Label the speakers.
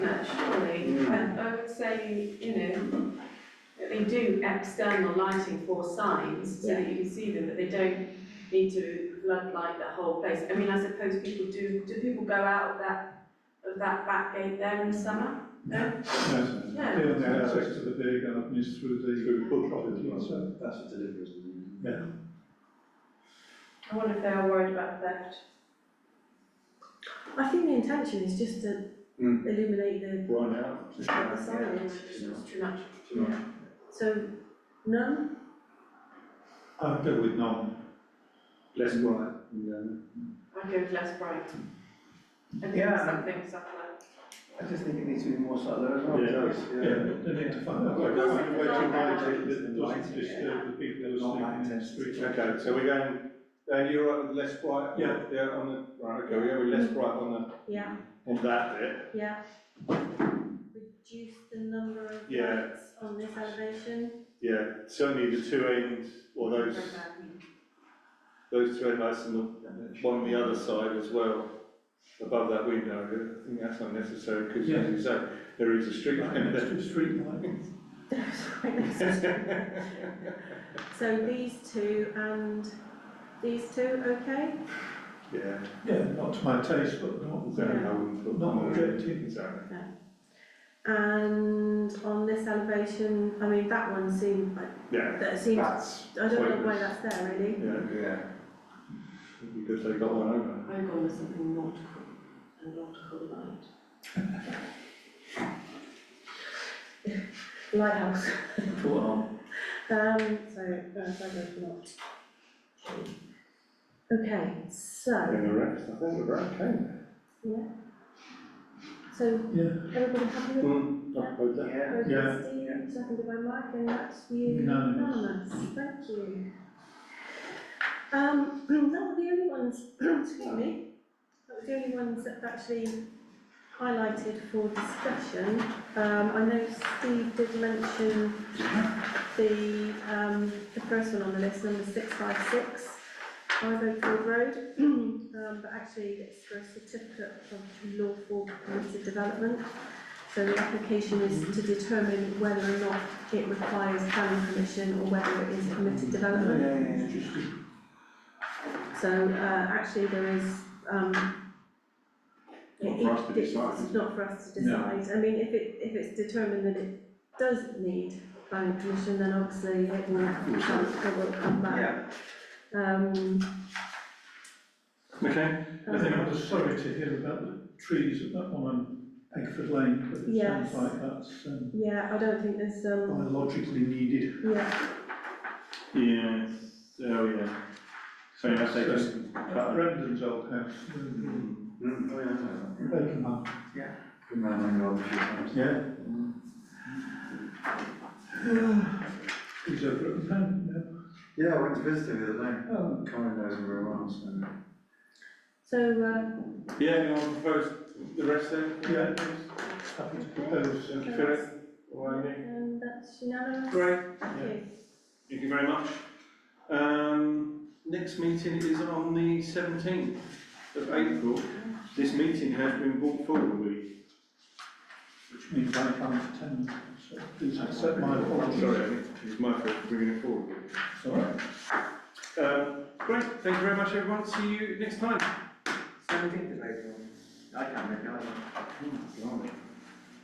Speaker 1: Um, I would say, you know, that they do external lighting for signs so that you can see them, but they don't need to floodlight the whole place. I mean, I suppose people do, do people go out of that, of that back gate there in the summer?
Speaker 2: No,
Speaker 1: No.
Speaker 2: down the access to the beer garden is through the.
Speaker 3: Through foot traffic as well.
Speaker 2: So,
Speaker 3: That's for deliveries, isn't
Speaker 2: Yeah.
Speaker 1: I wonder if they are worried about theft.
Speaker 4: I think the intention is just to
Speaker 3: Mm.
Speaker 4: illuminate the,
Speaker 3: it? Right now.
Speaker 4: the signage,
Speaker 1: It's too much.
Speaker 3: Too much.
Speaker 4: so none,
Speaker 2: I'd Uh, go with none.
Speaker 3: Less bright, and,
Speaker 1: I'd go with less bright. I think
Speaker 5: Yeah.
Speaker 1: something, something like
Speaker 5: I just think it needs to be more subtle as well.
Speaker 3: Yeah, it does,
Speaker 2: Yeah, they need to find out.
Speaker 3: Well,
Speaker 1: that's
Speaker 2: Find a way to
Speaker 1: something like
Speaker 2: light it that
Speaker 3: lighting,
Speaker 2: doesn't disturb the people who are sleeping
Speaker 3: Not
Speaker 2: in the
Speaker 3: lighting.
Speaker 2: street.
Speaker 3: um, Okay, so we're going, Dan, you're right with less bright?
Speaker 2: Yeah.
Speaker 3: Yeah, on the, right, okay, we're going with less bright on
Speaker 4: yeah,
Speaker 3: the, on that bit,
Speaker 4: yeah. Reduce the number of
Speaker 3: Yeah.
Speaker 4: lights on this elevation,
Speaker 3: yeah, certainly the two ends, or those, those two end lights and the one on the other side as well, above that window, I think that's unnecessary, because
Speaker 2: Yeah.
Speaker 3: as you say, there is a street lamp there.
Speaker 2: Extra street lighting.
Speaker 4: so these two and these two, okay?
Speaker 3: Yeah,
Speaker 2: Yeah, not to my taste, but not,
Speaker 3: so I wouldn't put.
Speaker 2: not objective.
Speaker 3: Exactly.
Speaker 4: And on this elevation, I mean, that one seemed like,
Speaker 3: Yeah,
Speaker 4: that seems, I
Speaker 3: that's.
Speaker 4: don't know why
Speaker 3: pointless.
Speaker 4: that's there really.
Speaker 3: Yeah,
Speaker 5: Yeah.
Speaker 3: because they got one over.
Speaker 1: I've gone with something nautical, a nautical light.
Speaker 4: Lighthouse.
Speaker 5: Put on.
Speaker 4: Um, so, uh, if I go for not. Okay, so,
Speaker 3: And the rest, I think we're okay.
Speaker 4: so
Speaker 2: Yeah.
Speaker 4: everybody happy with
Speaker 3: Hmm, I suppose that.
Speaker 5: Yeah.
Speaker 4: that?
Speaker 2: Yeah.
Speaker 4: Steve, seconded by Mike, and that's you,
Speaker 2: Unanimous.
Speaker 4: unanimous, thank you. Um, that were the only ones, excuse me, that were the only ones that actually highlighted for discussion. Um, I know Steve did mention the, um, the first one on the list, number six five six, Five Oak Ford Road. Um, but actually, it's for a certificate of lawful permitted development. So the application is to determine whether or not it requires planning permission or whether it is permitted
Speaker 5: Yeah,
Speaker 4: development.
Speaker 5: yeah, yeah.
Speaker 2: Interesting.
Speaker 4: So, uh, actually, there is, um.
Speaker 3: Not for us to
Speaker 4: it- it's
Speaker 3: decide.
Speaker 4: not for us to
Speaker 2: No.
Speaker 4: decide, I mean, if it, if it's determined that it does need planning permission, then obviously it will, come- it will come back. Um.
Speaker 3: Okay,
Speaker 2: I think I was sorry to hear about the trees at that one on Egford Lane, but it
Speaker 4: Yes.
Speaker 2: sounds like that's um,
Speaker 4: Yeah, I don't think there's, um,
Speaker 2: biologically needed.
Speaker 4: yeah,
Speaker 3: yeah, oh, yeah. So you must say just.
Speaker 2: Brendan's old house, um,
Speaker 3: Mm,
Speaker 5: Oh, yeah, no, no.
Speaker 2: Bacon Hut.
Speaker 5: Good man, I know, a few times.
Speaker 2: Yeah. He's over at the town
Speaker 5: Yeah, I went to visit him the other day.
Speaker 2: now. Oh,
Speaker 5: Colin knows him very well, so.
Speaker 4: so, uh,
Speaker 3: Yeah, you want to propose the rest then?
Speaker 2: Yeah. happy to propose, uh,
Speaker 3: Thank you,
Speaker 4: Yes.
Speaker 3: Philip, or Amy.
Speaker 4: and that's unanimous.
Speaker 3: Great,
Speaker 4: Thank
Speaker 2: yeah.
Speaker 4: you.
Speaker 3: thank you very much. Um, next meeting is on the seventeenth of April. This meeting has been brought forward a week.
Speaker 2: which means I come to town, so please accept my apologies.
Speaker 3: Sorry, I think it's my fault for bringing it forward.
Speaker 2: It's all right.
Speaker 3: Um, great, thank you very much, everyone. See you next time.
Speaker 5: Seventeenth of April. I can't make it, I
Speaker 3: Oh, blimey.